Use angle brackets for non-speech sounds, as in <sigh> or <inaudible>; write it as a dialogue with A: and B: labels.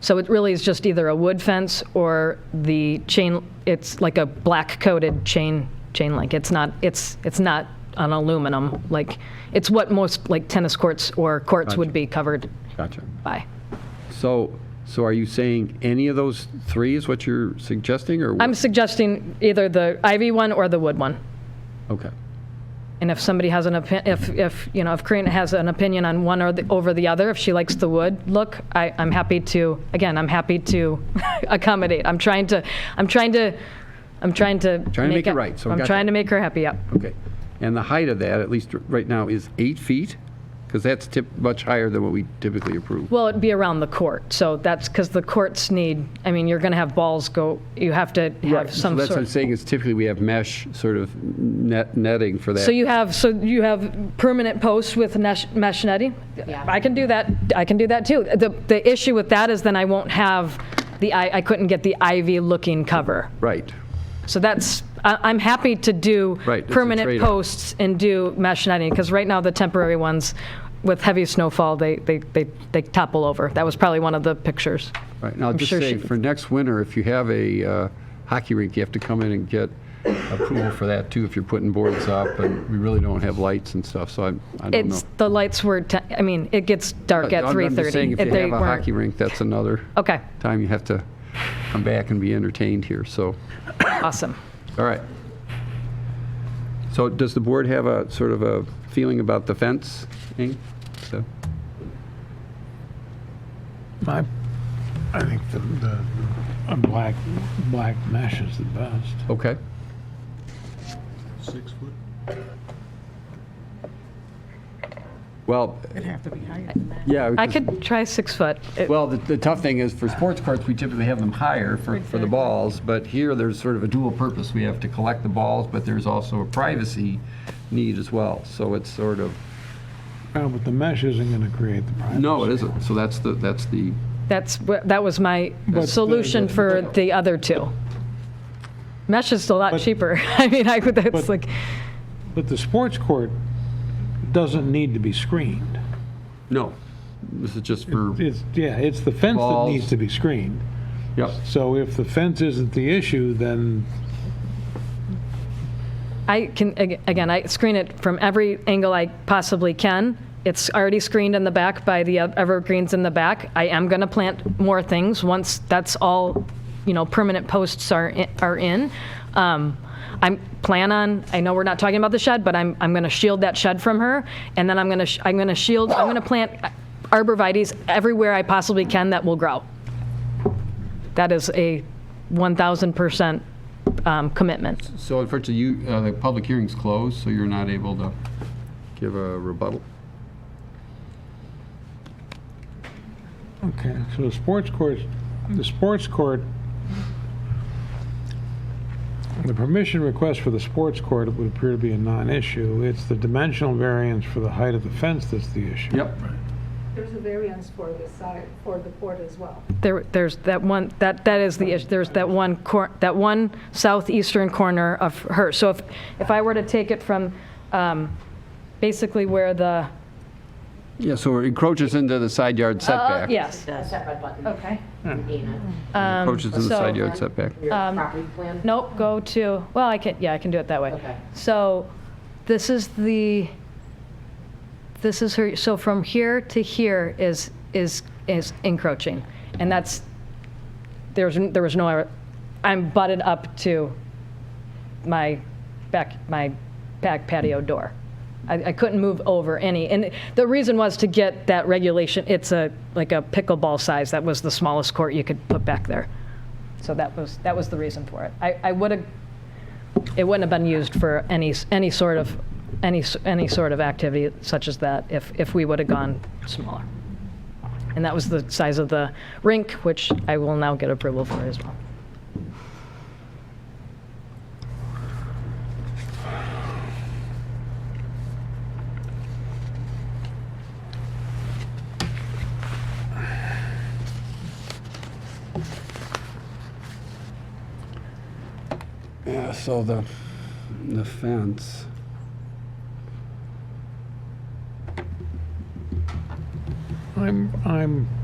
A: So it really is just either a wood fence or the chain, it's like a black coated chain, chain link. It's not, it's, it's not an aluminum, like, it's what most, like, tennis courts or courts would
B: Gotcha.
A: be covered
B: Gotcha.
A: by.
B: So, so are you saying any of those three is what you're suggesting, or?
A: I'm suggesting either the ivy one or the wood one.
B: Okay,
A: And if somebody has an opinion, if, if, you know, if Corinne has an opinion on one or the, over the other, if she likes the wood look, I, I'm happy to, again, I'm happy to <laughs> accommodate. I'm trying to, I'm trying to, I'm trying to.
B: Trying to make it right, so
A: I'm
B: gotcha.
A: trying to make her happy, yep.
B: okay. And the height of that, at least right now, is eight feet? Because that's tip, much higher than what we typically approve.
A: Well, it'd be around the court, so that's, because the courts need, I mean, you're going to have balls go, you have to have
B: So
A: some
B: that's what I'm
A: sort.
B: saying, is typically we have mesh sort of net, netting for that.
A: So you have, so you have permanent posts with mesh mesh netting?
C: Yeah.
A: I can do that, I can do that too. The, the issue with that is then I won't have the, I, I couldn't get the ivy-looking cover.
B: Right,
A: So that's, I, I'm happy to do
B: Right, it's a
A: permanent
B: trade-off.
A: posts and do mesh netting, because right now the temporary ones, with heavy snowfall, they, they, they they topple over. That was probably one of the pictures.
B: right. Now, just
A: sure
B: say,
A: she-
B: for next winter, if you have a uh, hockey rink, you have to come in and get approval for that too, if you're putting boards up, and we really don't have lights and stuff, so I, I don't know.
A: It's, the lights were, te- I mean, it gets dark at
B: Uh, I'm-
A: 3:30.
B: I'm just saying, if
A: If
B: you
A: they
B: have a
A: weren't- Oh.
B: hockey rink, that's another
A: Okay,
B: time you have to come back and be entertained here, so,
A: awesome.
B: all right. So does the board have a sort of a feeling about the fence thing? So-
D: My, I think the, the, a black, black mesh is the best.
B: Okay,
E: Six foot?
B: well,
C: It'd have to be higher than that.
B: yeah.
A: I
B: because-
A: could try six foot. It-
B: Well, the, the tough thing is for sports courts, we typically have them higher for, for the
C: Exactly.
B: balls, but here there's sort of a dual purpose. We have to collect the balls, but there's also a privacy need as well. So it's sort of,
D: No, Uh, but the mesh isn't gonna create the privacy.
B: no, it isn't. So that's the, that's the,
A: That's, wh- that was my
D: But-
A: solution for the other two. Mesh is a lot
D: But-
A: cheaper. <laughs> I mean, I would, that's
D: But-
A: like,
D: But the sports court doesn't need to be screened.
B: no, this is just for,
D: It's, yeah, it's the fence that
B: Balls.
D: needs to be screened.
B: yep.
D: So if the fence isn't the issue, then
A: I can, ag- again, I screen it from every angle I possibly can. It's already screened in the back by the evergreens in the back. I am going to plant more things once that's all, you know, permanent posts are, i- are in. Um, I'm plan on, I know we're not talking about the shed, but I'm, I'm going to shield that shed from her. And then I'm going to, I'm going to shield, I'm going to plant arborvitae's everywhere I possibly can that will grow. That is a 1,000% um, commitment.
B: So unfortunately, you, uh, the public hearing's closed, so you're not able to give a rebuttal.
D: Okay, so the sports court, the sports court, the permission request for the sports court would appear to be a non-issue. It's the dimensional variance for the height of the fence that's the issue.
B: Yep.
F: There's a variance for the side, for the court as well.
A: There, there's that one, that, that is the issue, there's that one cor, that one southeastern corner of her. So if, if I were to take it from, um, basically where the,
B: Yeah, so it encroaches into the side yard setback.
A: yes,
C: Does. That red button.
A: okay. Um,
C: Dana,
B: Encroaches into the
A: so-
B: side yard setback.
C: your property plan?
A: Nope, go to, well, I can, yeah, I can do it that way.
C: Okay.
A: So this is the, this is her, so from here to here is, is, is encroaching. And that's, there's, there was no, I'm butted up to my back, my back patio door. I, I couldn't move over any. And the reason was to get that regulation, it's a, like a pickleball size. That was the smallest court you could put back there. So that was, that was the reason for it. I, I would have, it wouldn't have been used for any, s- any sort of, any, s- any sort of activity such as that if, if we would have gone smaller. And that was the size of the rink, which I will now get approval for as well.
B: Yeah, so the, the fence.
D: I'm, I'm